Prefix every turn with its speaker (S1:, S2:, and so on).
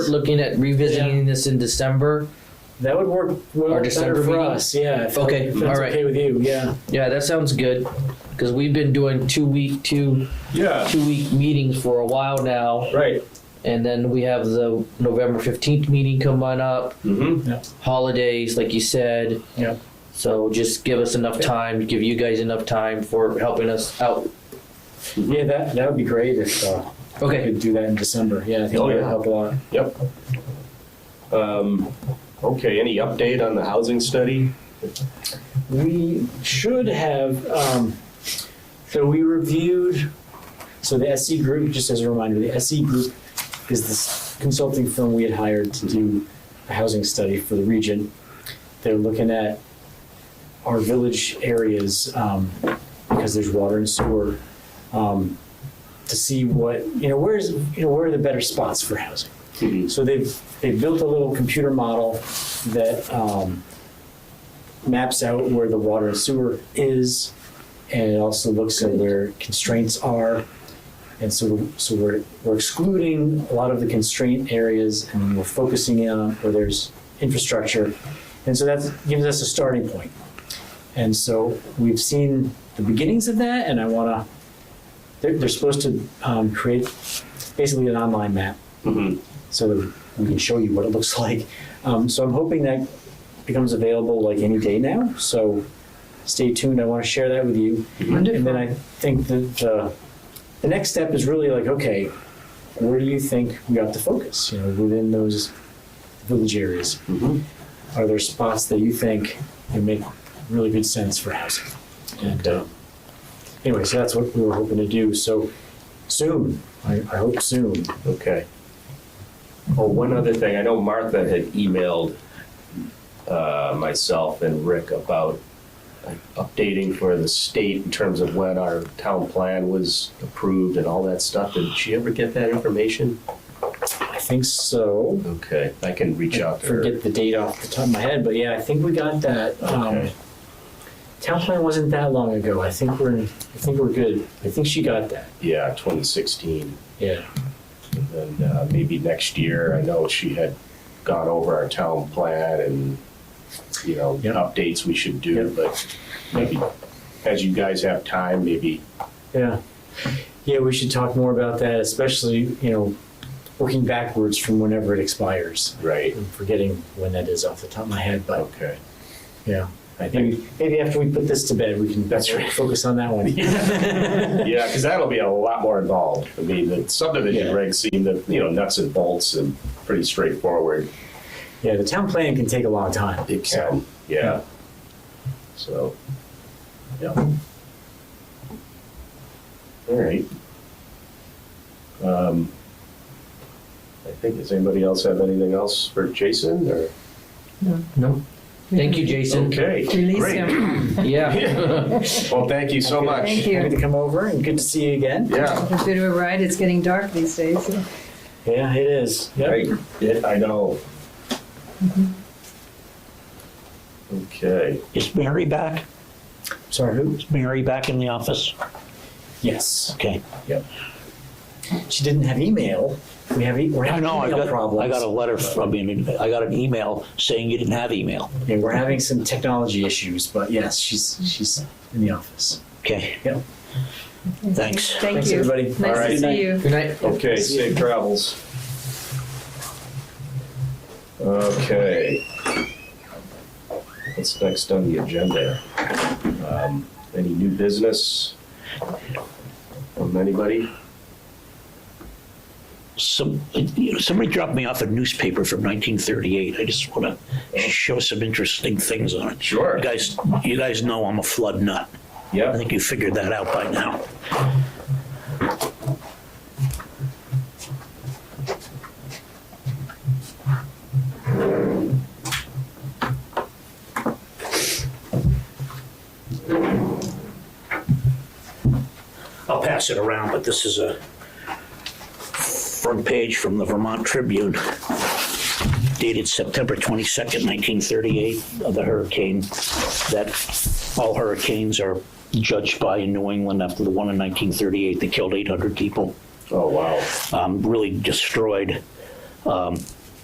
S1: looking at revisiting
S2: Yeah.
S1: this in December.
S2: That would work well
S1: Our
S2: better
S1: December
S2: for
S1: meeting?
S2: us. Yeah. If,
S1: Okay,
S2: If that's
S1: all right.
S2: okay with you. Yeah.
S1: Yeah, that sounds good because we've been doing two week two
S3: Yeah,
S1: two week meetings for a while now,
S3: right.
S1: and then we have the November fifteenth meeting coming up.
S3: Mm-hmm.
S1: Holidays, like you said.
S2: Yeah.
S1: So just give us enough time. Give you guys enough time for helping us out. Mm-hmm.
S2: Yeah. That that would be great if uh, we
S1: Okay.
S2: could do that in December. Yeah. I think
S3: Oh,
S2: that would
S3: yeah.
S2: help a lot.
S3: Um, okay, any update on the housing study?
S2: We should have. Um, so we reviewed. So the SC group, just as a reminder, the SC group is this consulting firm we had hired to do a housing study for the region. They're looking at our village areas um, because there's water and sewer um, to see what you know. Where's you know where are the better spots for housing?
S3: Mhm.
S2: So they've they've built a little computer model that um, maps out where the water and sewer is, and it also looks at where constraints are. And so, so we're, we're excluding a lot of the constraint areas and we're focusing in on where there's infrastructure. And so that gives us a starting point. And so we've seen the beginnings of that and I wanna, they're, they're supposed to, um, create basically an online map
S3: Mhm.
S2: so that we can show you what it looks like. Um, so I'm hoping that becomes available like any day now. So stay tuned. I want to share that with you. And then I think that uh, the next step is really like, okay, where do you think we ought to focus? You know, within those village areas,
S3: Mhm.
S2: are there spots that you think would make really good sense for housing? And uh, anyway, so that's what we were hoping to do. So soon, I, I hope soon.
S3: Okay. Oh, one other thing, I know Martha had emailed uh, myself and Rick about like, updating for the state in terms of when our town plan was approved and all that stuff. Did she ever get that information?
S2: I think so.
S3: Okay, I can reach
S2: I
S3: out to her.
S2: forget the date off the top of my head, but yeah, I think we got that. Um,
S3: Okay.
S2: town plan wasn't that long ago. I think we're, in- I think we're good. I think she got that.
S3: Yeah, 2016.
S2: Yeah.
S3: And uh, maybe next year, I know she had gone over our town plan and, you know,
S2: Yep.
S3: updates we should do,
S2: Yep.
S3: but maybe as you guys have time, maybe.
S2: Yeah. Yeah, we should talk more about that, especially, you know, working backwards from whenever it expires.
S3: Right.
S2: I'm forgetting when that is off the top of my head, but
S3: Okay.
S2: yeah.
S3: I think.
S2: Maybe, maybe after we put this to bed, we can
S3: That's right.
S2: focus on that one.
S3: Yeah, because that'll be a lot more involved. I mean, the subdivision
S2: Yeah.
S3: regs seem to, you know, nuts and bolts and pretty straightforward.
S2: Yeah, the town plan can take a long time.
S3: It
S2: so-
S3: can, yeah. So, yeah. All right. Um, I think, does anybody else have anything else for Jason or?
S1: No. Thank you, Jason.
S3: Okay,
S4: Release
S3: great.
S4: him.
S1: Yeah.
S3: Well, thank you so much.
S4: Thank
S2: Happy
S4: you.
S2: to come over and good to see you again.
S3: Yeah,
S4: It's a bit of a ride. It's getting dark these days.
S2: Yeah, it is. Yep.
S3: right, Yeah, I know.
S4: Mm-hmm.
S3: Okay.
S5: Is Mary back?
S2: Sorry, who?
S5: Is Mary back in the office?
S2: Yes.
S5: Okay.
S2: She didn't have email. We have e- we're
S5: I
S2: having
S5: know, I
S2: email
S5: got,
S2: problems.
S5: I got a letter from, I mean, I got an email saying you didn't have email.
S2: Yeah, we're having some technology issues, but yes, she's she's in the office.
S5: Okay.
S2: Yep.
S5: Thanks.
S4: Thank
S2: Thanks,
S4: you.
S2: everybody.
S4: Nice
S3: All right.
S4: to see you.
S1: Good night.
S3: Okay, safe travels. Okay. What's next on the agenda? Um, Any new business from anybody?
S5: Some, you know, somebody dropped me off a newspaper from 1938. I just want to show some interesting things on it.
S3: Sure.
S5: You guys, you guys know I'm a flood nut. I
S3: Yeah,
S5: think you figured that out by now. I'll pass it around, but this is a front page from the Vermont Tribune dated September 22nd, 1938, of the hurricane that all hurricanes are judged by in New England after the one in 1938 that killed 800 people,
S3: oh, wow.
S5: um, really destroyed um,